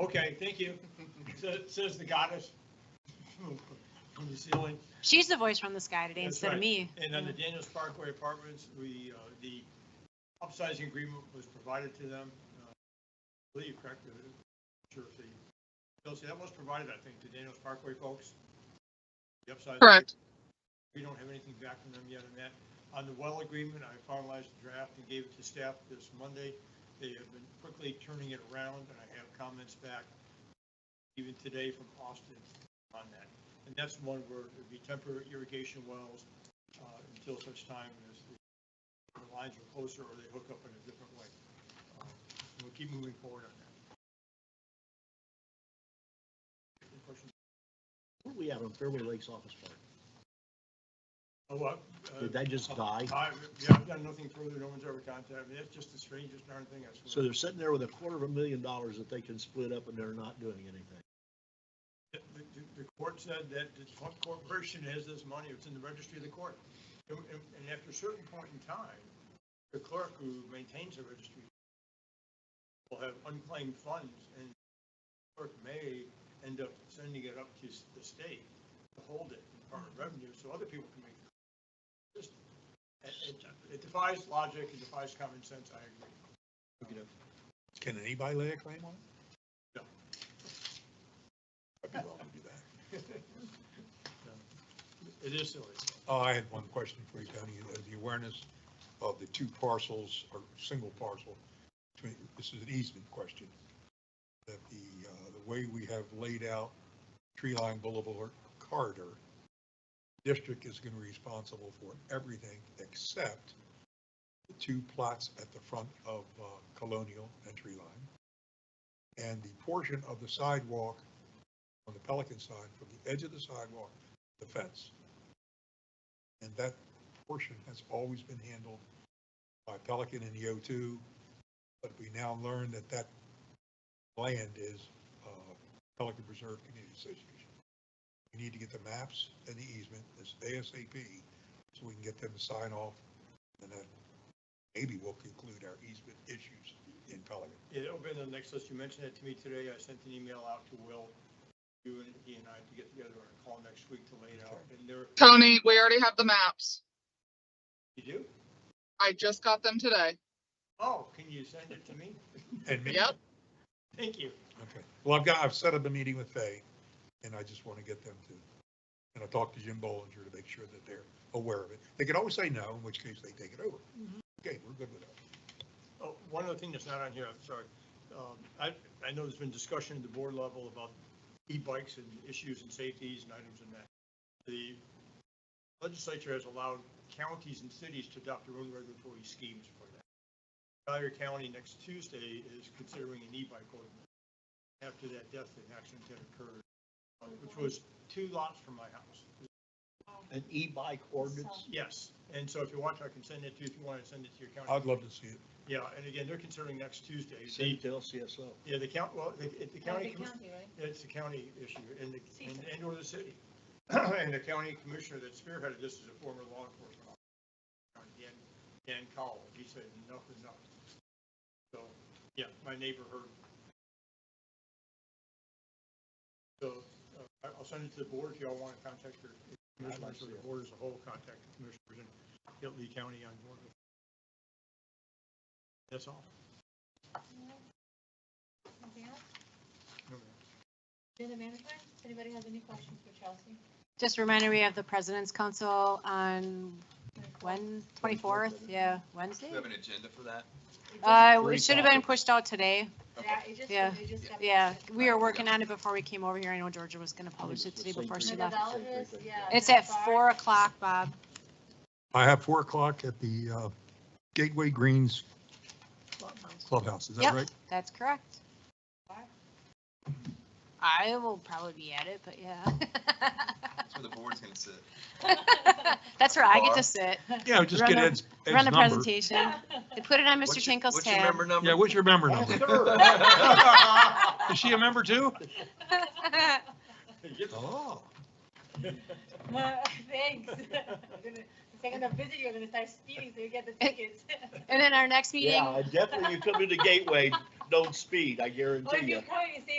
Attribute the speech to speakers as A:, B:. A: Okay, thank you. Sa- Says the goddess from the ceiling.
B: She's the voice from the sky today
A: That's
B: instead of
A: right.
B: me.
A: And on the Daniels Parkway Apartments, we, uh, the upsizing agreement was provided to them. uh, I believe, correct? Uh, Sure, if they- Bill, see, that was provided, I think, to Daniels Parkway folks. The upsizing.
C: Correct.
A: We don't have anything back from them yet on that. On the well agreement, I finalized the draft and gave it to staff this Monday. They have been quickly turning it around, and I have comments back even today from Austin on that. And that's one where it'd be temporary irrigation wells uh, until such time as the lines are closer or they hook up in a different way. Uh, We'll keep moving forward on that. Any questions?
D: Where we at on Fairway Lakes Office Park?
A: Oh, what? uh,
D: Did that just die?
A: I- Yeah, I've done nothing further. No one's ever contacted me. That's just the strangest darn thing I swear.
D: So they're sitting there with a quarter of a million dollars that they can split up and they're not doing anything.
A: The, the- the court said that the one corporation has this money, it's in the registry of the court. And, and and after a certain point in time, the clerk who maintains the registry will have unclaimed funds and the clerk may end up sending it up to s- the state to hold it in part of revenue, so other people can make. the- just- It, it- it defies logic, it defies common sense, I agree. Look it up.
E: Can anybody lay a claim on it?
A: No.
E: I'd be wrong to do that.
A: It is silly.
E: Oh, I had one question for you, Tony, Uh, the awareness of the two parcels or single parcel. between- This is an easement question. That the, uh, the way we have laid out tree line boulevard corridor, district is going to be responsible for everything except the two plots at the front of uh, Colonial and Tree Line. And the portion of the sidewalk on the Pelican side, from the edge of the sidewalk, to the fence. And that portion has always been handled by Pelican and the O2, but we now learn that that land is uh, Pelican Preserve Community Association. We need to get the maps and the easement, this ASAP, so we can get them to sign off, and then maybe we'll conclude our easement issues in Pelican.
A: Yeah, it'll be on the next list. You mentioned that to me today. I sent an email out to Will, you and he and I to get together on a call next week to lay it out. And there,
C: Tony, we already have the maps.
A: you do?
C: I just got them today.
A: Oh, can you send it to me?
E: And me-
C: Yep.
A: Thank you.
E: Okay, well, I've got, I've set up a meeting with Fay, and I just want to get them to, and I talked to Jim Bollinger to make sure that they're aware of it. They can always say no, in which case they take it over. Okay, we're good with that.
A: Oh, one other thing that's not on here, I'm sorry. Um, I, I know there's been discussion at the board level about e-bikes and issues and safeties and items and that. The legislature has allowed counties and cities to adopt their own regulatory schemes for that. Collier County next Tuesday is considering an e-bike ordinance after that death and accident had occurred, uh, which was two lots from my house.
D: An e-bike ordinance?
A: Yes, and so if you want to, I can send it to you, if you want to send it to your county.
E: I'd love to see it.
A: Yeah, and again, they're considering next Tuesday. The-
D: Send it to LCSO.
A: yeah, the count, well, the, the county, commi-
F: right?
A: it's a county issue and, the- and, and or the city. And the county commissioner that spearheaded this is a former law enforcement officer, Dan, Dan Cowell. He said, enough is enough. So, yeah, my neighbor heard. So uh, I- I'll send it to the board if y'all want to contact your commissioners or the board as a whole, contact the commissioners and get Lee County on board. with it. That's all. No, ma'am.
F: Jenna Manica, anybody has any questions for Chelsea?
B: Just a reminder, we have the President's Council on when, 24th? Yeah, Wednesday?
G: Do we have an agenda for that?
F: It just-
B: Uh,
D: Three
B: it should have been
D: topics.
B: pushed out today.
F: Yeah, it just,
B: yeah,
F: it just. got-
B: Yeah, we were working on it before we came over here. I know Georgia was going to publish Oh, it today before she left.
F: Methodologist, yeah.
B: It's at
F: Sorry.
B: 4 o'clock, Bob.
E: I have four o'clock at the uh, Gateway Greens Clubhouse, is that
B: Yep.
E: right?
B: That's correct. I will probably be at it, but yeah.
G: That's where the board's gonna sit.
B: That's where I get
G: Bar.
B: to sit,
E: Yeah, just
B: Run
E: get
B: a-
E: Ed's, Ed's
B: run a
E: number.
B: presentation. They put it on Mr.
G: What's your-
B: Tinkle's
G: What's your
B: tab.
G: member number?
E: Yeah, what's your member number? Is she a member too?
A: Get the
E: Oh.
F: Thanks. I'm gonna- The second I visit you, I'm gonna start speeding so you get the tickets.
B: And then our next meeting,
D: Yeah, definitely you come to the gateway,
H: don't speed, I guarantee
D: Or if
H: you.
D: you come, you see